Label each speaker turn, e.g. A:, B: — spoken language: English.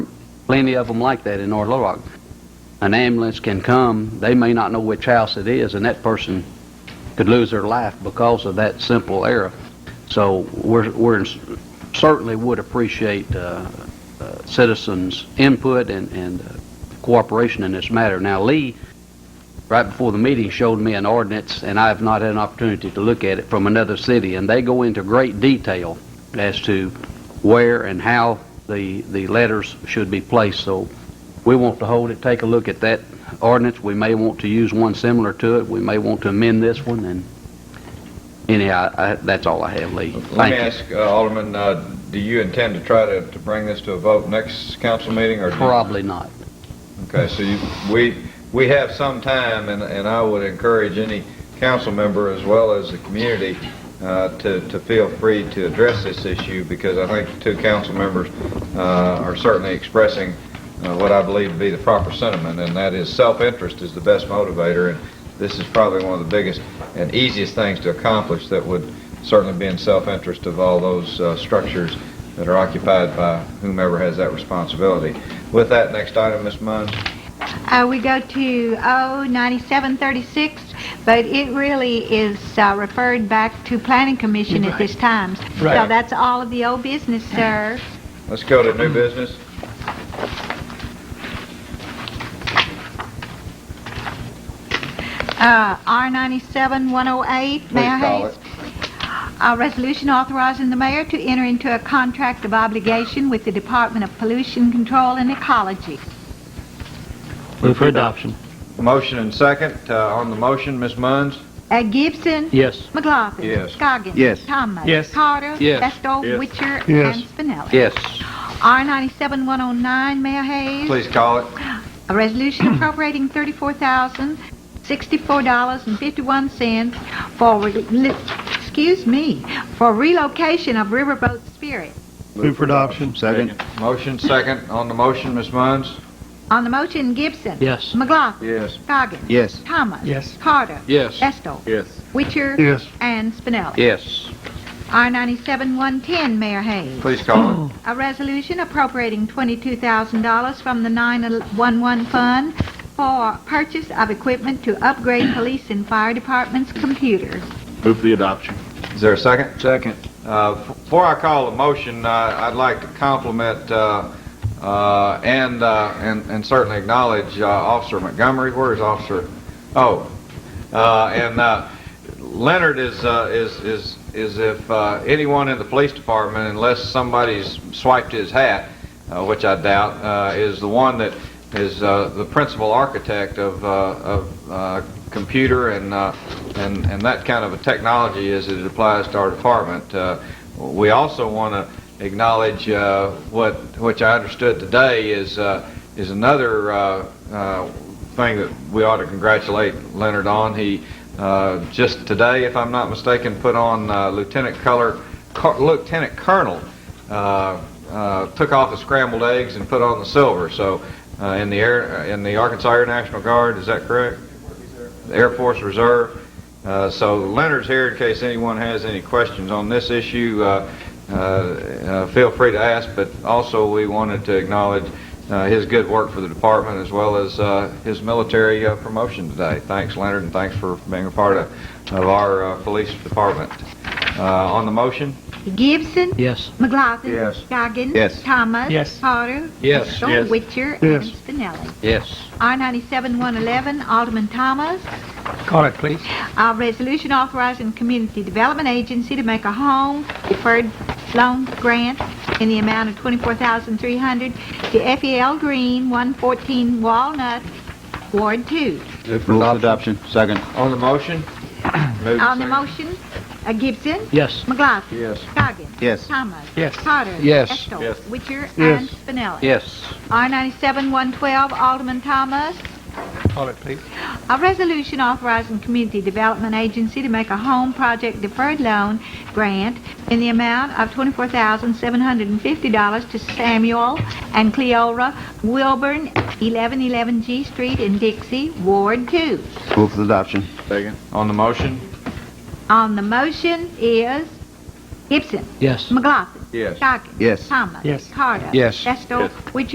A: plenty of them like that in North Little Rock. An ambulance can come, they may not know which house it is, and that person could lose their life because of that simple error. So we're, we're certainly would appreciate uh, uh, citizens' input and, and uh, cooperation in this matter. Now, Lee, right before the meeting, showed me an ordinance, and I have not had an opportunity to look at it, from another city, and they go into great detail as to where and how the, the letters should be placed. So we want to hold it, take a look at that ordinance. We may want to use one similar to it. We may want to amend this one, and anyhow, I- that's all I have, Lee.
B: Let me
A: Thank you.
B: ask, uh, Alderman, uh, do you intend to try to, to bring this to a vote next council meeting or? do you-
A: Probably not.
B: Okay, so you, we, we have some time and, and I would encourage any council member as well as the community, uh, to, to feel free to address this issue because I think the two council members, uh, are certainly expressing, uh, what I believe to be the proper sentiment and that is self-interest is the best motivator and this is probably one of the biggest and easiest things to accomplish that would certainly be in self-interest of all those, uh, structures that are occupied by whomever has that responsibility. With that, next item, Ms. Munns.
C: Uh, we go to O ninety-seven thirty-six, but it really is uh, referred back to planning commission at this time. So
B: Right.
C: that's all of the old business, sir.
B: Let's go to new business.
C: Uh, R ninety-seven one oh eight, Mayor
B: Please call
C: Hayes. A resolution authorizing the mayor to enter into a contract of obligation with the Department of Pollution Control and Ecology.
D: Move for adoption.
B: Motion and second. Uh, On the motion, Ms. Munns?
C: Uh, Gibson.
D: Yes.
C: McLaughlin.
B: Yes.
C: Scoggins.
A: Yes.
C: Thomas.
D: Yes.
C: Carter.
D: Yes.
C: Bestow.
D: Yes.
C: Witcher.
D: Yes.
C: And Spinelli.
A: Yes,
C: R ninety-seven one oh nine, Mayor Hayes.
B: Please call it.
C: A resolution appropriating thirty-four thousand, sixty-four dollars and fifty-one cents for, re- excuse me, for relocation of Riverboat Spirit.
D: Move for adoption.
E: Second?
B: Motion second. On the motion, Ms. Munns?
C: On the motion, Gibson.
D: Yes.
C: McLaughlin.
B: Yes.
C: Goggins.
E: Yes.
C: Thomas.
D: Yes.
C: Carter.
B: Yes.
C: Estel.
E: Yes.
C: Witcher.
D: Yes.
C: And Spinelli.
A: yes,
C: R ninety-seven one ten, Mayor Hayes.
B: Please call it.
C: A resolution appropriating twenty-two thousand dollars from the nine-one-one fund for purchase of equipment to upgrade police and fire departments' computers.
E: Move for the adoption.
B: Is there a second?
E: Second.
B: Uh, f- Before I call the motion, uh, I'd like to compliment uh, uh, and uh, and and certainly acknowledge uh, Officer Montgomery. Where is Officer? Oh, Uh, and uh, Leonard is uh, is is is if uh, anyone in the police department, unless somebody's swiped his hat, uh, which I doubt, uh, is the one that is uh, the principal architect of uh, of uh, computer and uh, and and that kind of a technology as it applies to our department. Uh, we also want to acknowledge uh, what which I understood today is uh, is another. Uh, uh, thing that we ought to congratulate Leonard on. He uh, just today, if I'm not mistaken, put on uh, Lieutenant Color, Col- Lieutenant Colonel, uh, uh, took off the scrambled eggs and put on the silver. So uh, in the air, in the Arkansas Air National Guard, is that correct? The Air Force Reserve. Uh, so Leonard's here in case anyone has any questions on this issue. Uh, uh, uh, feel free to ask, but also we wanted to acknowledge uh, his good work for the department as well as uh, his military uh, promotion today. Thanks, Leonard, and thanks for being a part of, of our uh, police department. Uh, on the motion,
C: Gibson.
D: Yes.
C: McLaughlin.
B: Yes.
C: Goggins.
E: Yes.
C: Thomas.
D: Yes.
C: Carter.
B: Yes.
C: Estel,
E: Yes.
C: Witcher.
D: Yes.
C: And Spinelli.
A: yes,
C: R ninety-seven one eleven, Alderman Thomas.
D: Call it, please.
C: A resolution authorizing Community Development Agency to make a home deferred loan grant in the amount of $24,300 to FEL Green, 114 Walnut, Ward 2.
E: Move for adoption. Second?
B: on the motion. Move
C: On the
B: second.
C: motion, uh, Gibson,
D: Yes.
C: McLaughlin.
B: Yes.
C: Goggins.
E: Yes.
C: Thomas.
D: Yes.
C: Carter.
A: Yes.
C: Estel.
B: Yes.
C: Witcher.
D: Yes.
C: And Spinelli.
A: yes,
C: R97-112, Alderman Thomas.
D: Call it, please.
C: A resolution authorizing Community Development Agency to make a home project deferred loan grant in the amount of $24,750 to Samuel and Cleora Wilburn, 1111 G Street in Dixie, Ward 2.
E: Move for adoption. Second?
B: On the motion.
C: On the motion is Gibson,
D: Yes.
C: McLaughlin,
B: Yes.
C: Goggins,
E: Yes.
C: Thomas,
D: Yes.
C: Carter,
A: Yes.
C: Vestal, Witcher,